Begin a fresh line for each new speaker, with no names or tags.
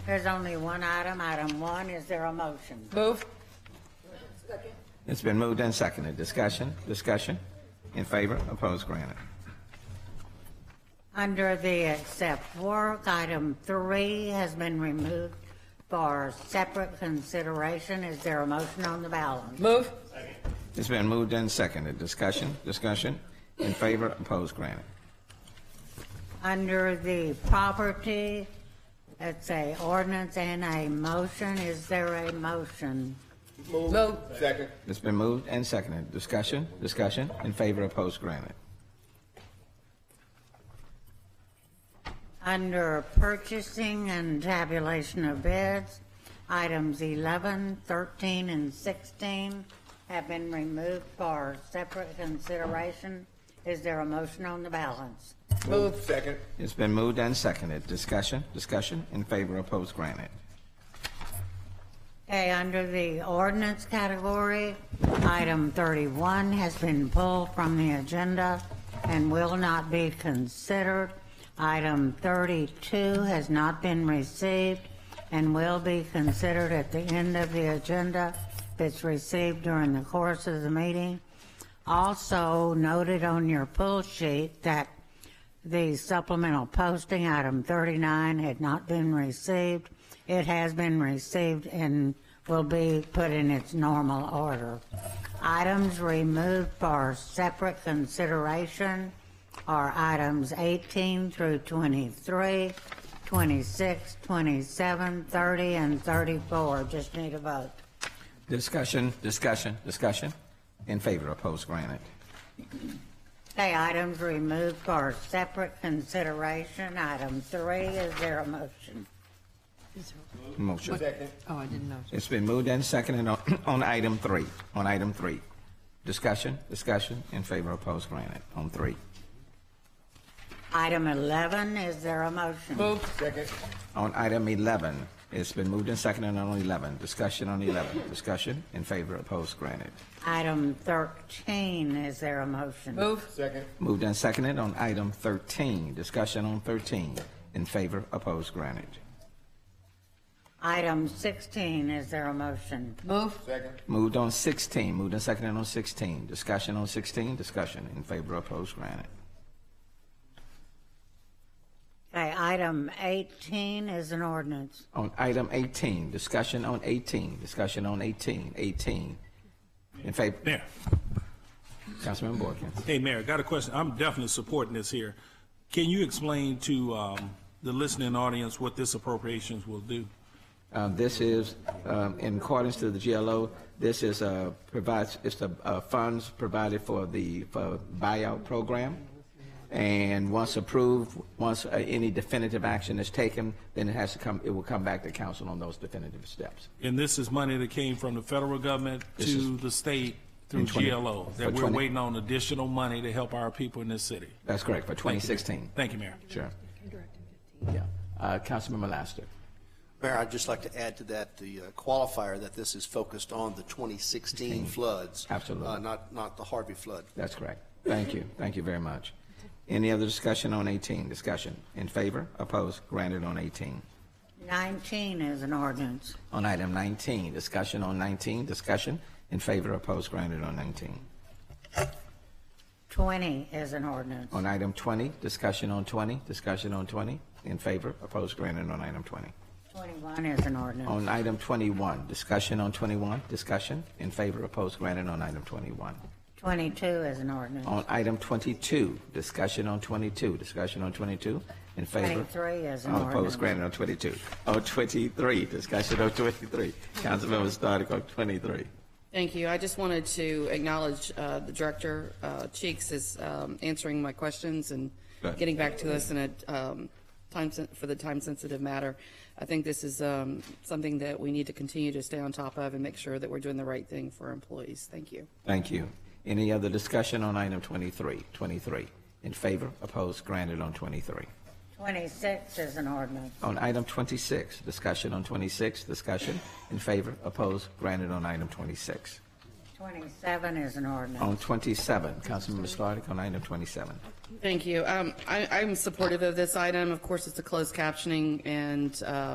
There's only one item, item one. Is there a motion?
Move.
It's been moved and seconded. Discussion, discussion. In favor, opposed, granted.
Under the accept work, item three has been removed for separate consideration. Is there a motion on the balance?
Move.
It's been moved and seconded. Discussion, discussion. In favor, opposed, granted.
Under the property, it's a ordinance and a motion. Is there a motion?
Move.
Second.
It's been moved and seconded. Discussion, discussion. In favor, opposed, granted.
Under purchasing and tabulation of bids, items 11, 13, and 16 have been removed for separate consideration. Is there a motion on the balance?
Move. Second.
It's been moved and seconded. Discussion, discussion. In favor, opposed, granted.
Okay, under the ordinance category, item 31 has been pulled from the agenda and will not be considered. Item 32 has not been received and will be considered at the end of the agenda if it's received during the course of the meeting. Also noted on your pull sheet that the supplemental posting, item 39, had not been received. It has been received and will be put in its normal order. Items removed for separate consideration are items 18 through 23, 26, 27, 30, and 34. Just need a vote.
Discussion, discussion, discussion. In favor, opposed, granted.
Okay, items removed for separate consideration, item 3. Is there a motion?
Motion.
Second.
Oh, I didn't know.
It's been moved and seconded on, on item three, on item three. Discussion, discussion, in favor, opposed, granted, on three.
Item 11, is there a motion?
Move.
Second.
On item eleven, it's been moved and seconded on eleven, discussion on eleven, discussion, in favor, opposed, granted.
Item 13, is there a motion?
Move.
Second.
Moved and seconded on item thirteen, discussion on thirteen, in favor, opposed, granted.
Item 16, is there a motion?
Move.
Second.
Moved on sixteen, moved and seconded on sixteen, discussion on sixteen, discussion, in favor, opposed, granted.
Okay, item 18 is an ordinance.
On item 18, discussion on 18, discussion on 18, 18. In favor,
Mayor,
Councilman Boykins.
hey, Mayor, got a question. I'm definitely supporting this here. Can you explain to um, the listening audience what this appropriations will do?
Uh, This is, um, in accordance to the GLO, this is, uh, provides, it's the uh, funds provided for the for buyout program. And once approved, once uh, any definitive action is taken, then it has to come, it will come back to council on those definitive steps.
And this is money that came from the federal government
This
to
is-
the state through
In 20
GLO,
for
that we're
20
waiting on additional money to help our people in this city.
That's correct, for 2016.
Thank you, Mayor.
Sure. Yeah. Uh, Councilman Laster.
Mayor, I'd just like to add to that the uh, qualifier that this is focused on the 2016 floods.
Absolutely.
uh, Not, not the Harvey flood.
That's correct. Thank you. Thank you very much. Any other discussion on 18? Discussion in favor, opposed, granted on 18.
19 is an ordinance.
On item 19, discussion on 19, discussion in favor, opposed, granted on 19.
20 is an ordinance.
On item 20, discussion on 20, discussion on 20, in favor, opposed, granted on item 20.
21 is an ordinance.
On item 21, discussion on 21, discussion in favor, opposed, granted on item 21.
22 is an ordinance.
On item 22, discussion on 22, discussion on 22, in favor.
23 is an
All
ordinance.
Opposed, granted on 22. On 23, discussion on 23. Councilmember Stoddard on 23.
Thank you. I just wanted to acknowledge uh, the director, uh, Cheeks, is um, answering my questions and
Right.
getting back to us in a um, time, sen- for the time-sensitive matter. I think this is um, something that we need to continue to stay on top of and make sure that we're doing the right thing for our employees. Thank you.
Thank you. Any other discussion on item 23? 23. In favor, opposed, granted on 23.
26 is an ordinance.
On item 26, discussion on 26, discussion in favor, opposed, granted on item 26.
27 is an
On
ordinance.
27, Councilmember Stoddard on item 27.
Thank you. Um, I- I'm supportive of this item. Of course, it's a closed captioning, and uh,